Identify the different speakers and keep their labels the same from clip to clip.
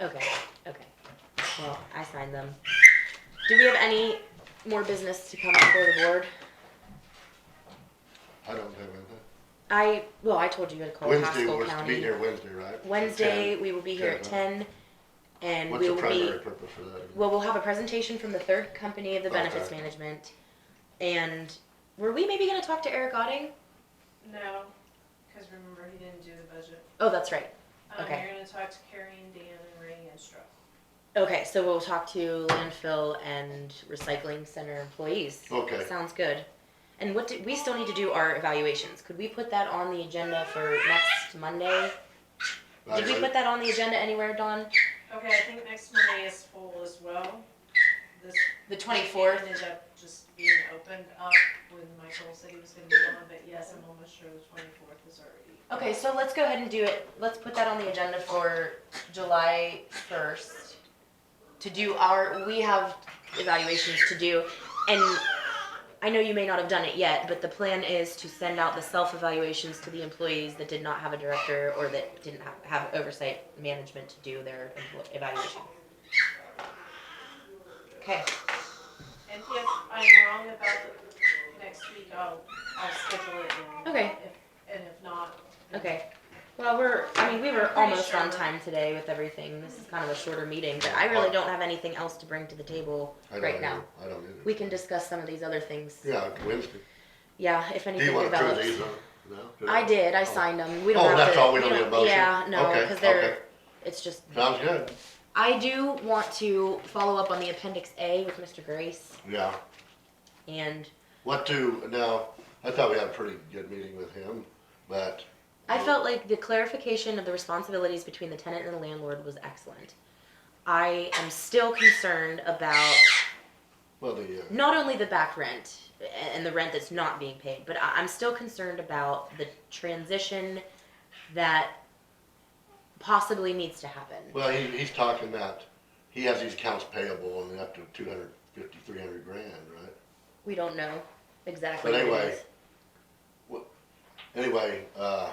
Speaker 1: Okay, okay. Well, I signed them. Do we have any more business to come before the board?
Speaker 2: I don't have anything.
Speaker 1: I, well, I told you to call
Speaker 2: Wednesday
Speaker 1: Pasco
Speaker 2: was to be
Speaker 1: County.
Speaker 2: here Wednesday, right? At
Speaker 1: Wednesday,
Speaker 2: 10.
Speaker 1: we will be here at ten, and
Speaker 2: What's
Speaker 1: we
Speaker 2: the
Speaker 1: will be,
Speaker 2: primary purpose for that? again?
Speaker 1: well, we'll have a presentation from the third company of the benefits
Speaker 2: Okay.
Speaker 1: management. And were we maybe gonna talk to Eric Otting?
Speaker 3: No, because remember, he didn't do the budget.
Speaker 1: Oh, that's right.
Speaker 3: Um,
Speaker 1: Okay.
Speaker 3: You're gonna talk to Carrie and Dan and Ray and Struck.
Speaker 1: Okay, so we'll talk to landfill and recycling center employees.
Speaker 2: Okay.
Speaker 1: Sounds good. And what do, we still need to do our evaluations. Could we put that on the agenda for next Monday? Did we
Speaker 2: Evaluate-
Speaker 1: put that on the agenda anywhere, Dawn?
Speaker 3: Okay, I think next Monday is full as well. This
Speaker 1: The
Speaker 3: meeting Ended up just being opened up when Michael said he was gonna be on, but yes, I'm almost sure the twenty-fourth is already.
Speaker 1: Okay, so let's go ahead and do it. Let's put that on the agenda for July first. To do our, we have evaluations to do, and I know you may not have done it yet, but the plan is to send out the self-evaluations to the employees that did not have a director or that didn't have, have oversight management to do their empl- evaluation. Okay,
Speaker 3: And if I'm wrong about the next week, I'll, I'll schedule it and.
Speaker 1: Okay.
Speaker 3: if- And if not. then-
Speaker 1: okay. Well, we're, I mean, we were almost on
Speaker 3: Pretty sure.
Speaker 1: time today with everything. This is kind of a shorter meeting, but I really don't have anything else to bring to the table
Speaker 2: I don't
Speaker 1: right now.
Speaker 2: either. I don't either.
Speaker 1: We can discuss some of these other things.
Speaker 2: Yeah, Wednesday.
Speaker 1: Yeah, if
Speaker 2: Do you
Speaker 1: anything
Speaker 2: wanna
Speaker 1: develops.
Speaker 2: prove these on? No?
Speaker 1: I did, I
Speaker 2: Oh.
Speaker 1: signed them. We don't
Speaker 2: Oh,
Speaker 1: have to.
Speaker 2: that's all, we don't need a motion.
Speaker 1: Yeah, no,
Speaker 2: Okay,
Speaker 1: because they're,
Speaker 2: okay.
Speaker 1: it's just,
Speaker 2: Sounds good.
Speaker 1: I do want to follow up on the appendix A with Mr. Grace
Speaker 2: Yeah.
Speaker 1: and
Speaker 2: What to, now, I thought we had a pretty good meeting with him, but.
Speaker 1: I felt like the clarification of the responsibilities between the tenant and the landlord was excellent. I am still concerned about
Speaker 2: Well, the, uh,
Speaker 1: not only the back rent and the rent that's not being paid, but I- I'm still concerned about the transition that possibly needs to happen.
Speaker 2: well, he, he's talking about, he has these accounts payable and up to two hundred fifty, three hundred grand, right?
Speaker 1: We don't know exactly.
Speaker 2: But
Speaker 1: what it
Speaker 2: anyway,
Speaker 1: is.
Speaker 2: Anyway, uh,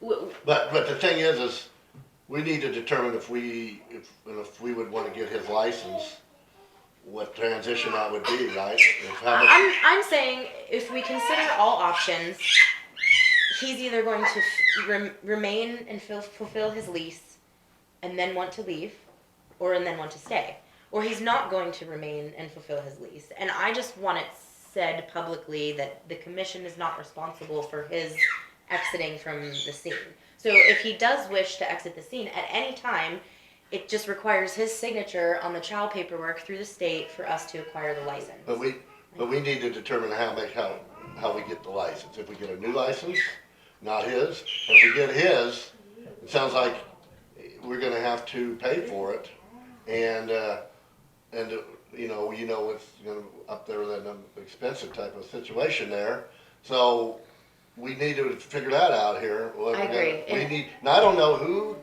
Speaker 1: W- w-
Speaker 2: But, but the thing is, is we need to determine if we, if, if we would wanna get his license, what transition that would be, right? If how much,
Speaker 1: I'm, I'm saying if we consider all options, he's either going to f- rem- remain and fill, fulfill his lease and then want to leave or and then want to stay. Or he's not going to remain and fulfill his lease. And I just want it said publicly that the commission is not responsible for his exiting from the scene. So if he does wish to exit the scene at any time, it just requires his signature on the child paperwork through the state for us to acquire the license.
Speaker 2: but we, but we need to determine how make, how, how we get the license. If we get a new license, not his, if we get his, it sounds like we're gonna have to pay for it. And, uh, and, uh, you know, you know, it's, you know, up there with that um, expensive type of situation there. So we need to figure that out here. what
Speaker 1: I
Speaker 2: we're gonna-
Speaker 1: agree.
Speaker 2: We
Speaker 1: And-
Speaker 2: need, and I don't know who,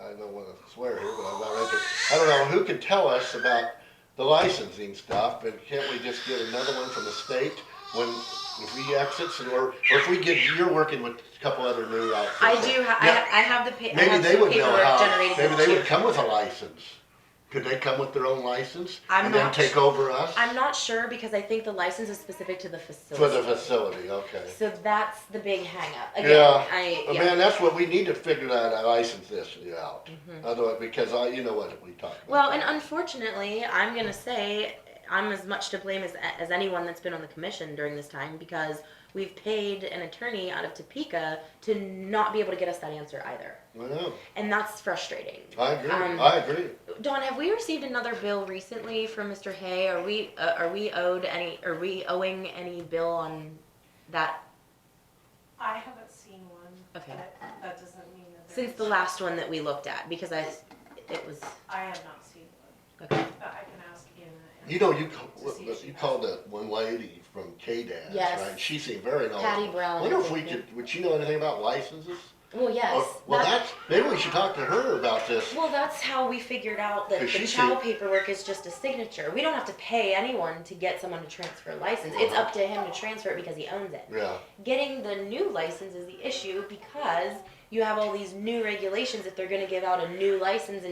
Speaker 2: I don't wanna swear here, but I'm not right there. I don't know who could tell us about the licensing stuff, but can't we just get another one from the state when, if we exits and or, or if we get, you're working with a couple other new outfits.
Speaker 1: I do. Ha-
Speaker 2: Now,
Speaker 1: I, I have the pa- I
Speaker 2: Maybe
Speaker 1: have
Speaker 2: they
Speaker 1: some
Speaker 2: would know
Speaker 1: paperwork
Speaker 2: how,
Speaker 1: generated.
Speaker 2: maybe
Speaker 1: with
Speaker 2: they
Speaker 1: you.
Speaker 2: would come with a license. Could they come with their own license?
Speaker 1: I'm
Speaker 2: And then
Speaker 1: not
Speaker 2: take over us?
Speaker 1: I'm not sure because I think the license is specific to the
Speaker 2: For the
Speaker 1: facility.
Speaker 2: facility, okay.
Speaker 1: so that's the big hang up. Again,
Speaker 2: Yeah.
Speaker 1: I
Speaker 2: Well,
Speaker 1: yeah.
Speaker 2: Man, that's what we need to figure out, how to license this out. Otherwise, because I, you know what we talk about.
Speaker 1: Mm-hmm. Well, and unfortunately, I'm gonna say I'm as much to blame as as anyone that's been on the commission during this time because we've paid an attorney out of Topeka to not be able to get us that answer either,
Speaker 2: Well,
Speaker 1: and that's frustrating.
Speaker 2: I agree,
Speaker 1: Um,
Speaker 2: I agree.
Speaker 1: Dawn, have we received another bill recently from Mr. Hay? Are we, uh, are we owed any, are we owing any bill on that,
Speaker 3: I haven't seen one.
Speaker 1: Okay.
Speaker 3: but That doesn't mean that.
Speaker 1: since the
Speaker 3: there's-
Speaker 1: last one that we looked at? Because I, it was,
Speaker 3: I have not seen one,
Speaker 1: okay.
Speaker 3: but I can ask Anna. and-
Speaker 2: You know, you, ca-
Speaker 3: To see if she
Speaker 2: you
Speaker 3: has
Speaker 2: called that one lady from KDAS,
Speaker 1: Yes.
Speaker 2: right? She seemed very knowledgeable.
Speaker 1: Patty Brown,
Speaker 2: Oh, Wonder
Speaker 1: I
Speaker 2: if we
Speaker 1: think,
Speaker 2: could, would she know anything about licenses?
Speaker 1: Well, yes.
Speaker 2: Or- Well,
Speaker 1: that-
Speaker 2: that's, maybe we should talk to her about this.
Speaker 1: Well, that's how we figured out that
Speaker 2: Because
Speaker 1: the
Speaker 2: she
Speaker 1: child
Speaker 2: said-
Speaker 1: paperwork is just a signature. We don't have to pay anyone to get someone to transfer a license. It's
Speaker 2: Uh-huh.
Speaker 1: up to him to transfer it because he owns it.
Speaker 2: Yeah,
Speaker 1: Getting the new license is the issue because you have all these new regulations. If they're gonna give out a new license